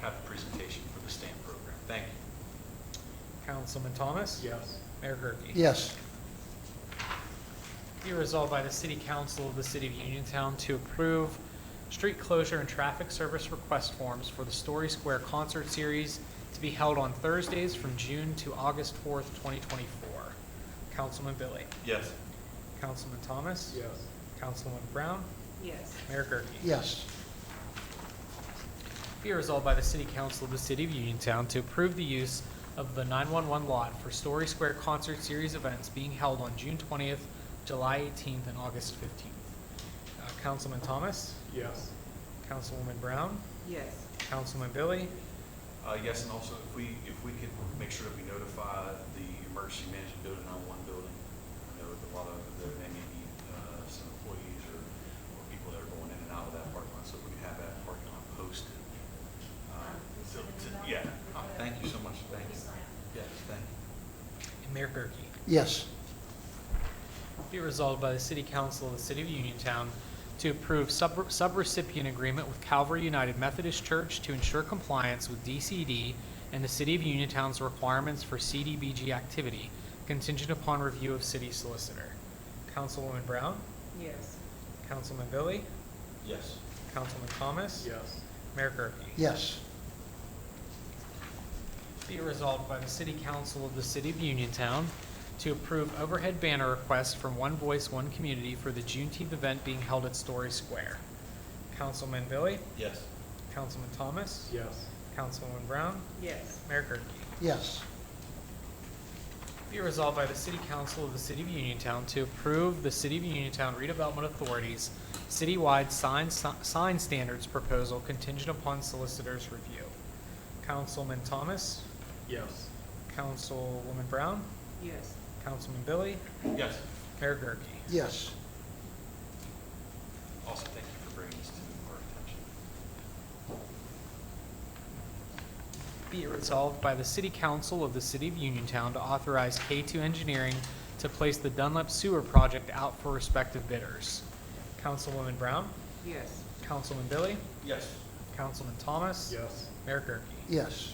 have a presentation for the STAMP program. Thank you. Councilman Thomas? Yes. Mayor Gurke? Yes. Be resolved by the City Council of the City of Uniontown to approve street closure and traffic service request forms for the Story Square Concert Series to be held on Thursdays from June to August 4th, 2024. Councilman Billy? Yes. Councilman Thomas? Yes. Councilman Brown? yes, Mayor Gurke? Yes. Be it resolved by the City Council of the City of Uniontown to approve the use of the 911 lot for Story Square Concert Series events being held on June 20th, July 18th, and August 15th. Uh, Councilman Thomas, Yes. Councilwoman Brown, yes, Councilman Billy, Uh, yes, and also if we, if we could make sure that we notify the emergency management building on one building. I know that a lot of, there may be, uh, some employees or, or people that are going in and out of that parking lot, so we can have that parking lot posted. Um, so to- Yeah, Oh, thank you so much, thank you. Yes, thank you. and Mayor Gurke. Yes. Be it resolved by the City Council of the City of Uniontown to approve sub- subrecipient agreement with Calvary United Methodist Church to ensure compliance with DCD and the City of Uniontown's requirements for CDBG activity contingent upon review of city solicitor. Councilwoman Brown, yes, Councilman Billy, Yes. Councilman Thomas, Yes. Mayor Gurke. Yes. Be it resolved by the City Council of the City of Uniontown to approve overhead banner request from One Voice, One Community for the Juneteenth event being held at Story Square. Councilman Billy, Yes. Councilman Thomas, Yes. Councilwoman Brown, yes, Mayor Gurke. Yes. Be it resolved by the City Council of the City of Uniontown to approve the City of Uniontown Redevelopment Authority's citywide sign, sign standards proposal contingent upon solicitor's review. Councilman Thomas, Yes. Councilwoman Brown, yes, Councilman Billy, Yes. Mayor Gurke. Yes. Also, thank you for bringing this to our attention. Be it resolved by the City Council of the City of Uniontown to authorize K2 Engineering to place the Dunlap Sewer Project out for respective bidders. Councilwoman Brown, yes, Councilman Billy, Yes. Councilman Thomas. Yes. Mayor Gurke. Yes.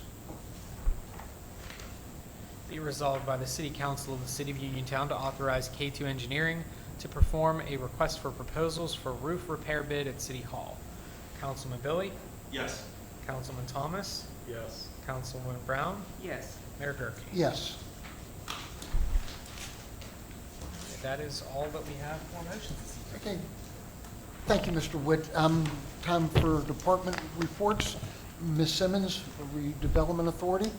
Be it resolved by the City Council of the City of Uniontown to authorize K2 Engineering to perform a request for proposals for roof repair bid at City Hall. Councilman Billy, Yes. Councilman Thomas, Yes. Councilwoman Brown, yes. Mayor Gurke. Yes. That is all that we have for motions this evening. Okay. Thank you, Mr. Witt. Um, Time for department reports. Ms. Simmons, Redevelopment Authority.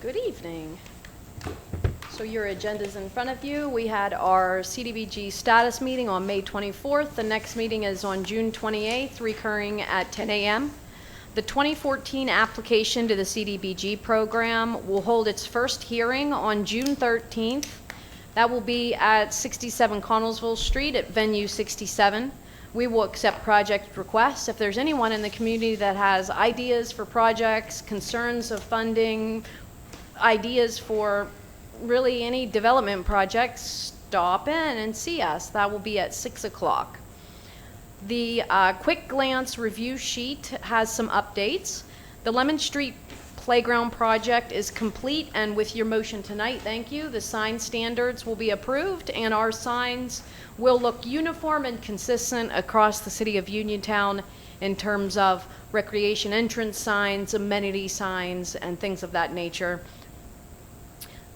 Good evening. So your agenda's in front of you. We had our CDBG status meeting on May 24th. The next meeting is on June 28th, recurring at 10 a.m. The 2014 application to the CDBG program will hold its first hearing on June 13th. That will be at 67 Connellsville Street at Venue 67. We will accept project requests. If there's anyone in the community that has ideas for projects, concerns of funding, ideas for really any development projects, stop in and see us. That will be at 6 o'clock. The uh, quick glance review sheet has some updates. The Lemon Street Playground project is complete, and with your motion tonight, thank you, the sign standards will be approved, and our signs will look uniform and consistent across the city of Uniontown in terms of recreation entrance signs, amenity signs, and things of that nature.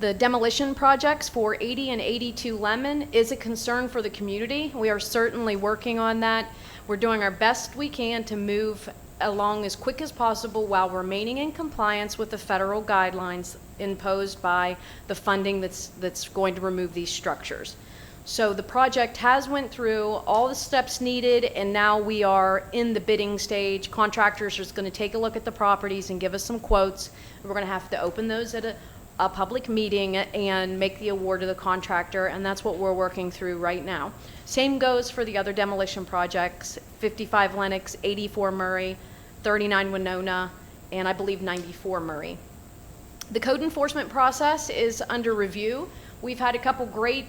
The demolition projects for 80 and 82 Lemon is a concern for the community. We are certainly working on that. We're doing our best we can to move along as quick as possible while remaining in compliance with the federal guidelines imposed by the funding that's, that's going to remove these structures. So the project has went through all the steps needed, and now we are in the bidding stage. Contractors are going to take a look at the properties and give us some quotes. We're going to have to open those at a, a public meeting and make the award to the contractor, and that's what we're working through right now. Same goes for the other demolition projects, 55 Lennox, 84 Murray, 39 Winona, and I believe 94 Murray. The code enforcement process is under review. We've had a couple great